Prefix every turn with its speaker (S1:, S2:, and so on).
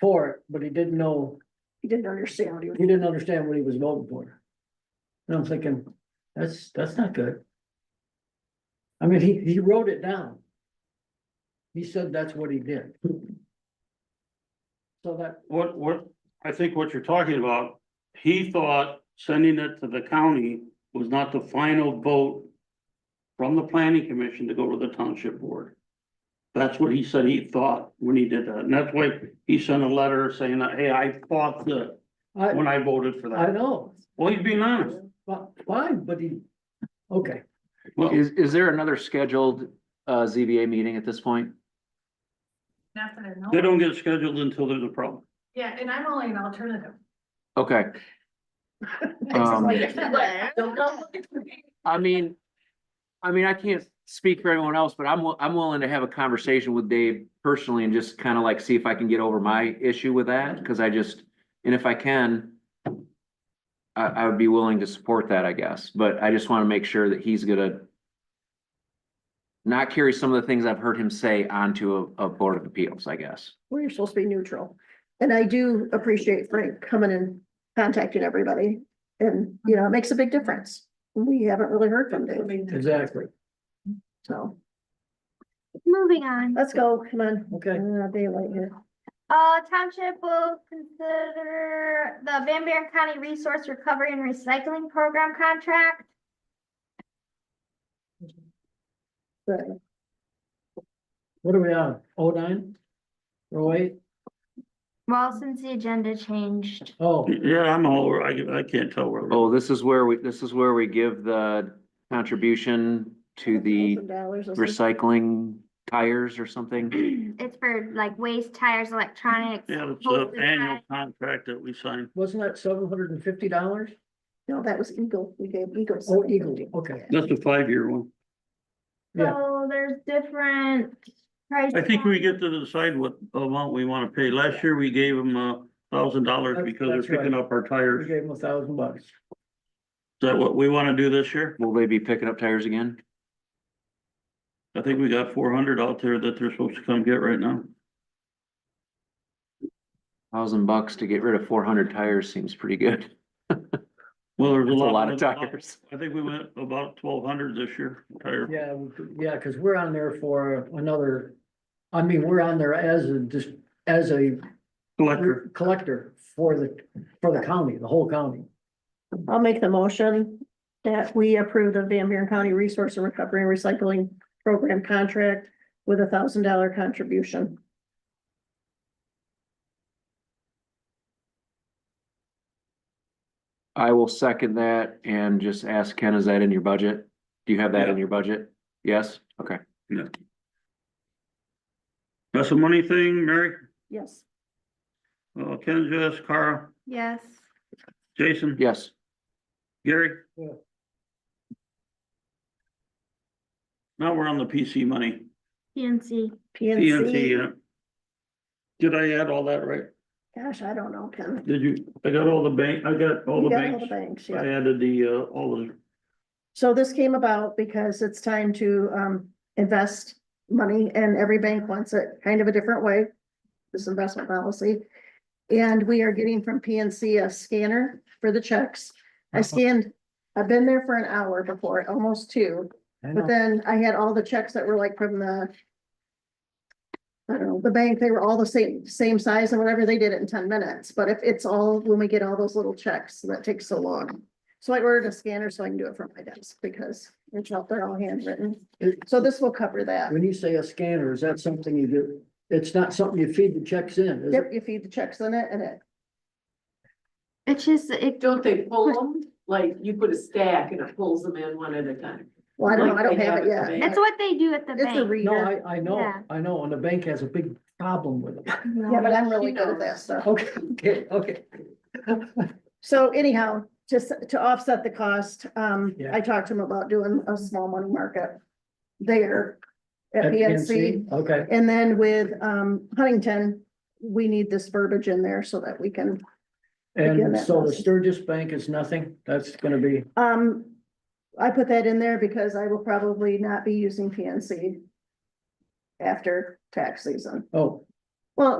S1: for it, but he didn't know,
S2: He didn't understand what he was,
S1: he didn't understand what he was voting for. And I'm thinking, that's, that's not good. I mean, he, he wrote it down. He said that's what he did. So that,
S3: What, what, I think what you're talking about, he thought sending it to the county was not the final vote. From the planning commission to go to the township board. That's what he said he thought when he did that, and that's why he sent a letter saying that, hey, I thought that
S1: I,
S3: when I voted for
S1: I
S3: that.
S1: know,
S3: Well, he's being honest.
S1: but fine, but he, okay,
S3: Well,
S4: Is, is there another scheduled, uh, ZBA meeting at this point?
S5: Not that I know.
S3: they
S5: of.
S3: don't get scheduled until there's a problem.
S5: Yeah, and I'm only an alternative.
S4: Okay. Um,
S5: Don't come looking for me.
S4: I mean, I mean, I can't speak for everyone else, but I'm, wi- I'm willing to have a conversation with Dave personally and just kind of like see if I can get over my issue with that, because I just, and if I can, I, I would be willing to support that, I guess, but I just want to make sure that he's gonna not carry some of the things I've heard him say onto a, a board of appeals, I guess.
S2: well, you're supposed to be neutral. And I do appreciate Frank coming and contacting everybody. And, you know, it makes a big difference. We haven't really heard from Dave,
S1: exactly,
S2: so
S6: Moving on,
S2: let's go, come on.
S1: okay.
S2: Uh, Daylight here.
S6: uh, township will consider the Van Buren County Resource Recovery and Recycling Program contract.
S2: But
S1: What are we on, oh nine? Oh eight?
S6: Well, since the agenda changed,
S1: Oh,
S3: Yeah, I'm all, over. I, I can't tell where.
S4: Oh, this is where we, this is where we give the contribution to the
S2: $1,000 or something.
S4: recycling tires or something.
S6: it's for like waste, tires, electronics.
S3: Yeah, it's
S6: hoses,
S3: an annual
S6: ties.
S3: contract that we sign.
S1: wasn't that seven hundred and fifty dollars?
S2: No, that was Eagle. We gave Eagle.
S1: Oh, Eagle,
S2: $750.
S1: okay.
S3: That's a five-year one.
S1: Yeah.
S6: So there's different price.
S3: I think we get to decide what amount we wanna pay. Last year, we gave them a thousand dollars
S1: That's-
S3: because they're
S1: that's right.
S3: picking up our
S1: We
S3: tires. Is
S1: gave him a thousand bucks.
S3: that what we wanna do this year?
S4: Will they be picking up tires again?
S3: I think we got four hundred out there that they're supposed to come get right now.
S4: Thousand bucks to get rid of four hundred tires seems pretty good.
S3: Well, there's a
S4: That's
S3: lot.
S4: a lot of tires.
S3: I think we went about twelve hundred this year, tire.
S1: Yeah, we could- yeah, because we're on there for another, I mean, we're on there as a, just as a
S3: collector.
S1: collector for the, for the county, the whole county.
S2: I'll make the motion that we approve the Van Buren County Resource and Recovery and Recycling Program contract with a thousand dollar contribution.
S4: I will second that and just ask Ken, is that in your budget? Do you have that in
S3: Yeah.
S4: your budget? Yes? Okay.
S3: That's a money thing, Mary,
S2: Yes.
S3: uh, Ken, Jess, Cara,
S6: Yes,
S3: Jason.
S4: Yes.
S3: Gary.
S1: Yeah.
S3: Now we're on the PC money,
S6: PNC.
S3: PNC,
S2: PNC.
S3: yeah. Did I add all that right?
S2: Gosh, I don't know, Ken.
S3: Did you, I got all the bank, I got all
S2: You
S3: the
S2: got all
S3: banks,
S2: the banks,
S3: I
S2: yeah.
S3: added the, uh, all the,
S2: So this came about because it's time to um invest money and every bank wants it kind of a different way. This investment policy. And we are getting from PNC a scanner for the checks. I scanned, I've been there for an hour before, almost two.
S1: I know.
S2: But then I had all the checks that were like from the. I don't know, the bank, they were all the same, same size and whatever, they did it in ten minutes, but if it's all, when we get all those little checks, that takes so long. So I ordered a scanner so I can do it from my desk because it's out there all handwritten,
S1: It-
S2: so this will cover that.
S1: When you say a scanner, is that something you do? It's not something you feed the checks in, is
S2: Yep,
S1: it?
S2: you feed the checks in it and it,
S6: It's just, it,
S7: Don't they pull them? Like you put a stack and it pulls them in one at a time.
S2: well, I don't know, I
S7: Like
S2: don't
S7: they
S2: have it
S7: at the
S2: yet.
S6: it's
S7: bank.
S6: what they do at the
S2: It's a
S6: bank.
S1: No,
S2: reader,
S1: I, I know,
S6: Yeah.
S1: I know, and the bank has a big problem with it.
S2: yeah, but I'm really good at that stuff.
S1: Okay, okay, okay.
S2: So anyhow, just to offset the cost, um,
S1: Yeah.
S2: I talked to him about doing a small money market there at
S1: At
S2: PNC.
S1: PNC? Okay,
S2: And then with, um, Huntington, we need this verbiage in there so that we can, Again,
S1: and
S2: that
S1: so the
S2: was-
S1: Sturgis Bank is nothing, that's gonna be,
S2: um, I put that in there because I will probably not be using PNC after tax season.
S1: oh.
S2: Well,